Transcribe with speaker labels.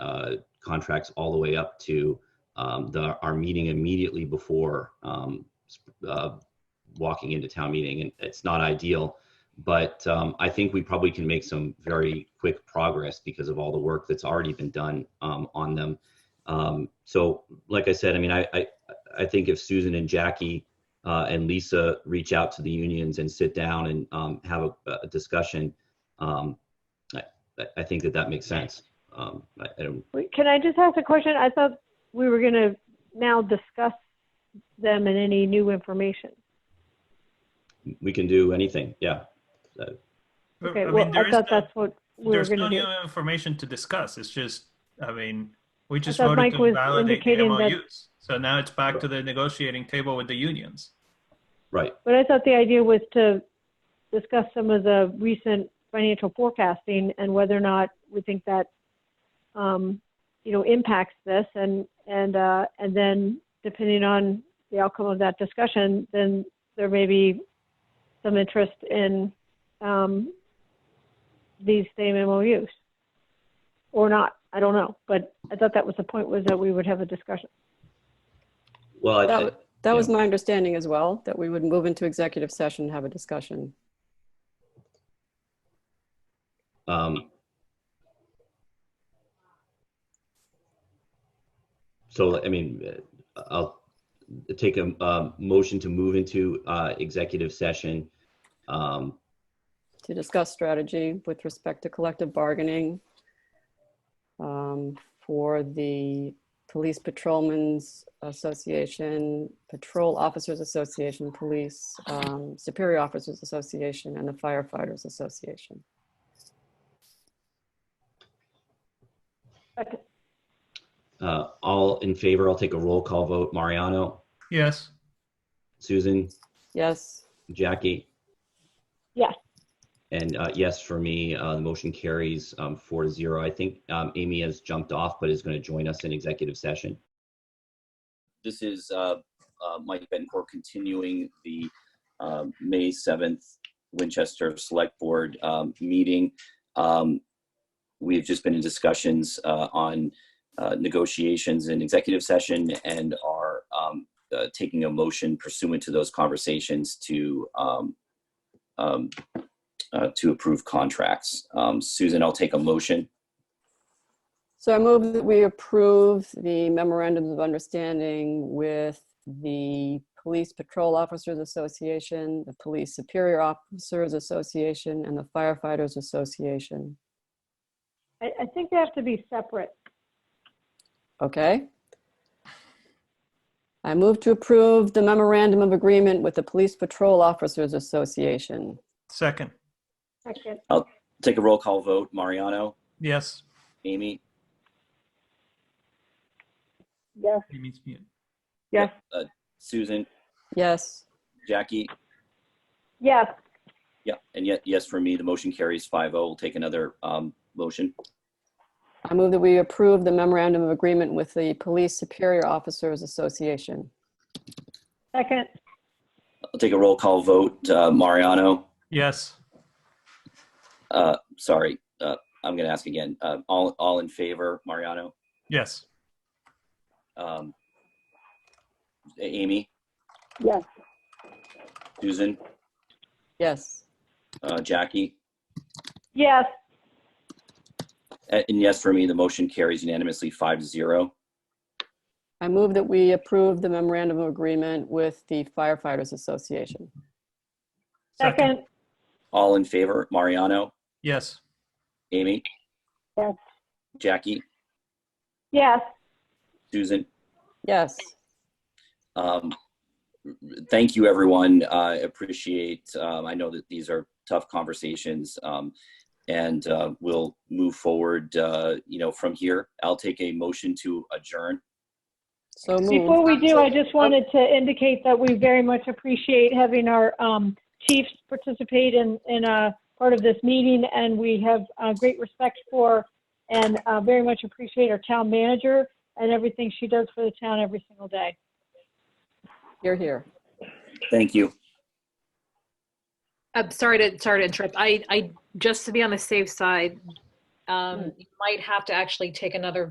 Speaker 1: uh, contracts all the way up to um, the, our meeting immediately before um, s- uh, walking into town meeting. And it's not ideal, but um, I think we probably can make some very quick progress because of all the work that's already been done um, on them. Um, so, like I said, I mean, I, I, I think if Susan and Jackie uh, and Lisa reach out to the unions and sit down and um, have a, a discussion, um, I, I- I think that that makes sense. Um, I, I don't,
Speaker 2: Wait, Can I just ask a question? I thought we were going to now discuss them and any new information.
Speaker 1: we can do anything. Yeah.
Speaker 3: Well,
Speaker 2: Okay,
Speaker 3: I
Speaker 2: well,
Speaker 3: mean, there
Speaker 2: I
Speaker 3: is
Speaker 2: thought
Speaker 3: no-
Speaker 2: that's what we were
Speaker 3: there's
Speaker 2: going
Speaker 3: no
Speaker 2: to do.
Speaker 3: new information to discuss. It's just, I mean, we just
Speaker 2: thought
Speaker 3: voted
Speaker 2: Mike
Speaker 3: to
Speaker 2: was
Speaker 3: validate the
Speaker 2: indicating that-
Speaker 3: MOUs. So now it's back to the negotiating table with the unions.
Speaker 1: Right.
Speaker 2: But I thought the idea was to discuss some of the recent financial forecasting and whether or not we think that, um, you know, impacts this and, and, uh, and then depending on the outcome of that discussion, then there may be some interest in, um, these same MOUs. Or not, I don't know, but I thought that was the point was that we would have a discussion.
Speaker 1: Well, I,
Speaker 4: That,
Speaker 1: I,
Speaker 4: wa- that was
Speaker 1: yeah.
Speaker 4: my understanding as well, that we would move into executive session, and have a discussion.
Speaker 1: Um, so, I mean, uh, I'll take a um, motion to move into uh, executive session. Um,
Speaker 4: to discuss strategy with respect to collective bargaining um, for the Police Patrolmen's Association, Patrol Officers Association, Police um, Superior Officers Association, and the Firefighters Association.
Speaker 1: uh, all in favor, I'll take a roll call vote. Mariano,
Speaker 3: Yes.
Speaker 1: Susan,
Speaker 4: Yes,
Speaker 1: Jackie?
Speaker 2: Yes.
Speaker 1: And uh, yes, for me, uh, the motion carries um, four to zero. I think um, Amy has jumped off, but is going to join us in executive session.
Speaker 5: This is uh, uh, Mike Bencourt continuing the um, May 7th Winchester Select Board um, meeting. Um, We've just been in discussions uh, on uh, negotiations in executive session and are um, uh, taking a motion pursuant to those conversations to um, um, uh, to approve contracts. Um, Susan, I'll take a motion.
Speaker 4: so I move that we approve the memorandums of understanding with the Police Patrol Officers Association, the Police Superior Officers Association, and the Firefighters Association.
Speaker 2: I, I think they have to be separate.
Speaker 4: Okay. I move to approve the memorandum of agreement with the Police Patrol Officers Association.
Speaker 3: Second.
Speaker 2: Second,
Speaker 5: Take a roll call vote. Mariano,
Speaker 3: Yes.
Speaker 5: Amy,
Speaker 2: yes.
Speaker 3: Amy's mute.
Speaker 5: Susan,
Speaker 4: Yes,
Speaker 5: Jackie,
Speaker 2: Yes.
Speaker 5: Yeah, and yet, yes, for me, the motion carries 5-0. We'll take another um, motion.
Speaker 4: I move that we approve the memorandum of agreement with the Police Superior Officers Association.
Speaker 2: Second,
Speaker 5: I'll take a roll call vote. Uh, Mariano,
Speaker 3: Yes.
Speaker 5: uh, sorry, uh, I'm going to ask again. Uh, all, all in favor, Mariano,
Speaker 3: Yes.
Speaker 5: um, A- Amy?
Speaker 2: Yes.
Speaker 5: Susan,
Speaker 4: Yes,
Speaker 5: uh, Jackie,
Speaker 2: yes.
Speaker 5: A- and yes, for me, the motion carries unanimously 5-0. zero.
Speaker 4: I move that we approve the memorandum of agreement with the Firefighters Association.
Speaker 2: Second,
Speaker 5: All in favor, Mariano,
Speaker 3: Yes.
Speaker 5: Amy?
Speaker 2: Yes.
Speaker 5: Jackie,
Speaker 2: yes.
Speaker 5: Susan?
Speaker 4: Yes,
Speaker 5: um, thank you everyone i appreciate um, i know that these are tough conversations um, and uh, we'll move forward uh, you know from here i'll take a motion to adjourn
Speaker 4: so
Speaker 2: Before
Speaker 4: moved.
Speaker 2: we do, I just wanted to indicate that we very much appreciate having our um, chiefs participate in, in a part of this meeting, and we have uh, great respect for and uh, very much appreciate our town manager and everything she does for the town every single day.
Speaker 4: You're here.
Speaker 5: thank you
Speaker 6: Uh, I'm sorry to, sorry to interrupt. I, I, just to be on the safe side, Um, you might have to actually take another